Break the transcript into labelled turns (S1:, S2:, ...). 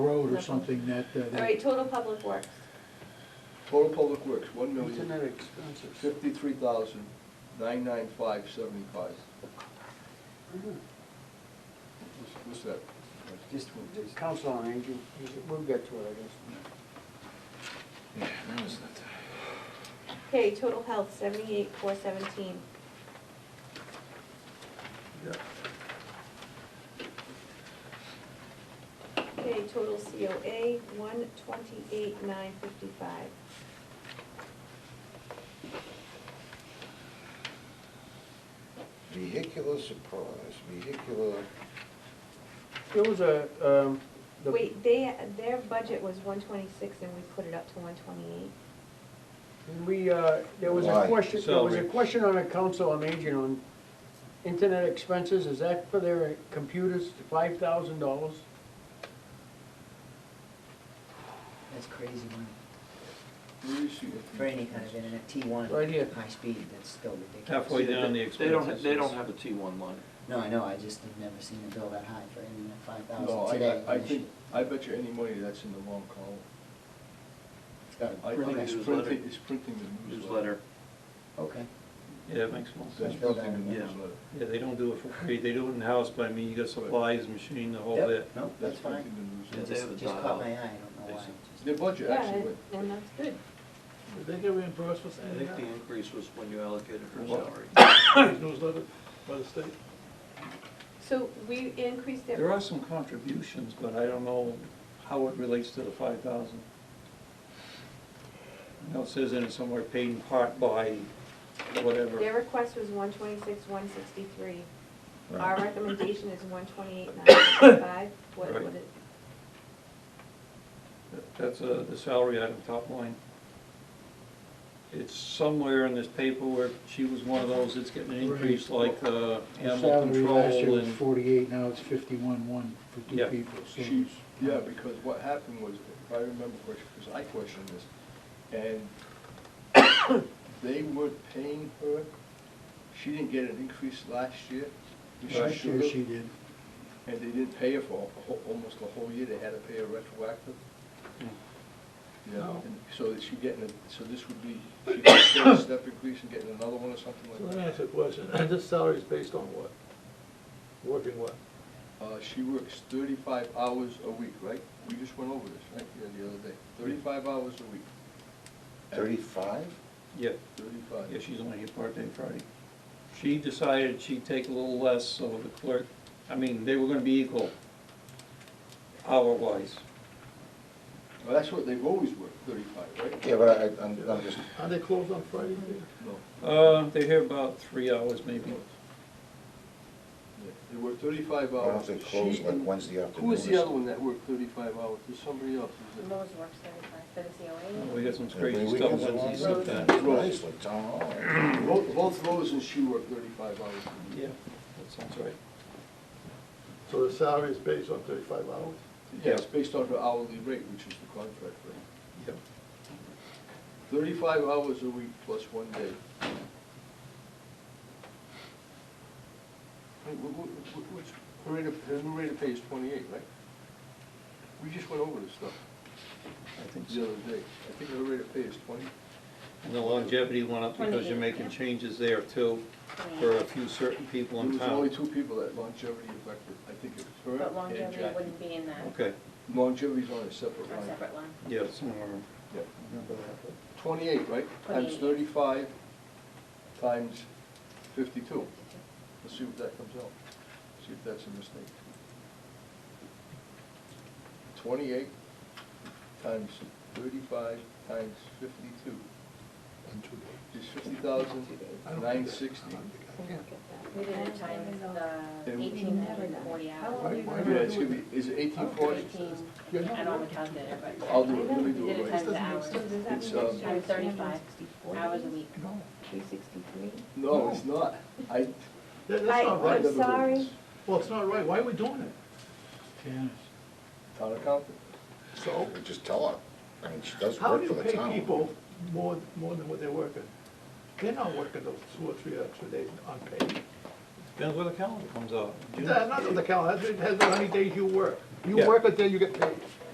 S1: or something that, uh,
S2: All
S1: that,
S2: right, total public works.
S3: Total public works, one
S4: Isn't
S3: million,
S4: that expensive?
S3: fifty-three thousand, nine nine five seventy-five.
S4: Mm-hmm.
S3: What's- What's that?
S4: Just, just council on aging, we'll get to it, I
S5: Yeah, where is that?
S2: Okay, total health, seventy-eight, four seventeen.
S3: Yeah.
S2: Okay, total COA, one twenty-eight, nine fifty-five.
S5: Vehicular surprise, vehicular,
S4: guess. It was a, um, the.
S2: Wait, they, their budget was one twenty-six and we put it up to one twenty-eight?
S4: We, uh, there was a
S5: Why?
S4: question, there was a
S6: Salary.
S4: question on a council on aging on internet expenses, is that for their computers, five thousand dollars?
S7: That's crazy money
S3: Where is she?
S7: for any kind of internet, T one.
S4: Right here.
S7: High speed, that's still ridiculous.
S6: Halfway down the
S8: They don't,
S6: expenses.
S8: they don't have a T one line.
S7: No, I know, I just have never seen a bill that high for internet, five
S3: No,
S7: thousand
S3: I-
S7: today.
S3: I, I think, I bet you any money that's in the wrong column.
S7: It's got a
S3: I
S8: Printing
S3: think
S7: okay.
S3: it's
S8: newsletter.
S3: printing, it's printing the newsletter.
S8: Newsletter,
S7: Okay,
S6: Yeah, it makes more
S3: That's
S7: That's
S6: sense.
S3: printing the
S8: Yeah.
S3: newsletter.
S6: Yeah, they don't do it for free, they do it in-house, but I mean, you got supplies, machine, the whole bit.
S7: no, that's fine.
S3: printing the
S8: Yeah,
S7: It
S3: newsletter.
S8: they
S7: Just,
S8: have a
S7: just
S8: dial.
S7: caught my eye, I don't know why. Just-
S3: Their budget actually went,
S2: Yeah, and that's good.
S1: did they get reimbursed for
S8: I
S1: sending
S8: think the
S1: out
S8: increase was when you allocated her
S3: What?
S8: salary.
S1: newsletter by the state?
S2: So we increased it.
S6: There are some contributions, but I don't know how it relates to the five thousand. I know it says in it somewhere paid in part by
S2: Their
S6: whatever.
S2: request was one twenty-six, one sixty-three. Our
S6: Right.
S2: recommendation is one twenty-eight, nine fifty-five. What,
S6: Right.
S2: what it,
S6: That- That's uh, the salary item, top line. It's somewhere in this paper where she was one of those that's getting an increase like uh,
S1: The
S6: animal
S1: salary last year
S6: control
S1: was
S6: and,
S1: forty-eight, now it's fifty-one, one for two
S6: Yeah.
S1: people, so.
S3: She's, yeah, because what happened was, if I remember correctly, because I questioned this, and they weren't paying her, she didn't get an increase last year. which she
S1: Last year
S3: should've,
S1: she did.
S3: And they didn't pay her for a whole- almost a whole year, they had to pay her retroactive.
S6: Hmm.
S3: Yeah,
S6: No.
S3: and so that she getting, a- so this would be, she could get a step increase and getting another one or something
S1: So
S3: like
S1: let me
S3: that.
S1: ask you a question, this salary is based on what? Working what?
S3: Uh, she works thirty-five hours a week, right? We just went over this, right, Yeah, the other day, thirty-five hours a week.
S5: thirty-five?
S6: yeah.
S3: Thirty-five.
S6: Yeah, she's only here part-day Friday. She decided she'd take a little less, so the clerk, I mean, they were gonna be equal hour-wise.
S3: Well, that's what they've always worked, thirty-five, right?
S5: Yeah, but I, I'm, I'm just,
S1: Are they closed on Friday?
S3: No.
S6: Uh, they're here about three hours maybe.
S3: Yeah, They work thirty-five
S5: I
S3: hours.
S5: don't know if they close
S3: She
S5: like
S3: and-
S5: Wednesday afternoon.
S3: Who was the
S5: or
S3: other one that worked thirty-five hours? There's somebody else, is it?
S9: Lowe's works thirty-five for the COA.
S6: Uh, We got some
S5: something.
S6: crazy
S5: Every
S6: stuff
S5: weekend's
S6: Wednesday
S5: a long
S6: sometimes.
S5: weekend. Nice, like oh, town hall.
S3: Both, both Rose and she worked thirty-five hours.
S6: Yeah, that sounds right.
S1: So the salary is based on thirty-five hours?
S3: Yeah, it's based on her hourly rate, which is the contract rate.
S6: Yep.
S3: Thirty-five hours a week plus one day. Wait, wh- wh- wh- which, her rate of, her new rate of pay is twenty-eight, right? We just went over this stuff
S6: I think
S3: the
S6: so.
S3: other day. I think her rate of pay is twenty.
S6: And the longevity went up because you're making changes there too, for a few certain people
S3: There
S6: in
S3: was only
S6: town.
S3: two people that longevity affected. I think it was
S9: But
S3: her and
S9: longevity
S3: Jackie.
S9: wouldn't be in that,
S6: Okay,
S3: Longevity's on a separate
S9: or a
S3: line.
S9: separate line.
S6: yeah, somewhere,
S3: Yeah.
S6: remember that.
S3: Twenty-eight, right? Times
S9: 28.
S3: thirty-five times fifty-two. Let's see what that comes out. See if that's a mistake. Twenty-eight times thirty-five times fifty-two is fifty thousand nine sixty.
S2: look at
S9: We
S2: that.
S9: did it times the
S3: And-
S9: eighteen hundred and forty hours.
S1: Why- why-
S3: Yeah, it's gonna be, is it eighteen forty?
S1: You're
S9: Eighteen,
S1: not
S9: I don't have
S1: working.
S9: a calculator, but.
S3: I'll do it, let me do
S9: We
S3: it
S9: did it
S3: right.
S9: times the hours,
S2: So does that
S3: It's,
S2: mean
S3: um,
S2: next year it's gonna be
S9: 35
S2: 164
S9: hours a week.
S1: No,
S2: Three sixty-three?
S3: No, it's not.
S1: that,
S3: I,
S2: I-
S1: that's not
S3: I
S1: right.
S2: I'm
S3: never heard
S2: sorry.
S3: this.
S1: Well, it's not right, why are we doing it?
S3: Town accountant.
S1: So,
S5: We Just tell her, I mean, she does
S1: how do
S5: work for
S1: you
S5: the
S1: pay
S5: town.
S1: people more, more than what they're working? They're not working those two or three extra days unpaid.
S6: Depends where the calendar comes out.
S1: That's not on the calendar, that has how many days you work. You
S6: Yeah.
S1: work a day, you get paid.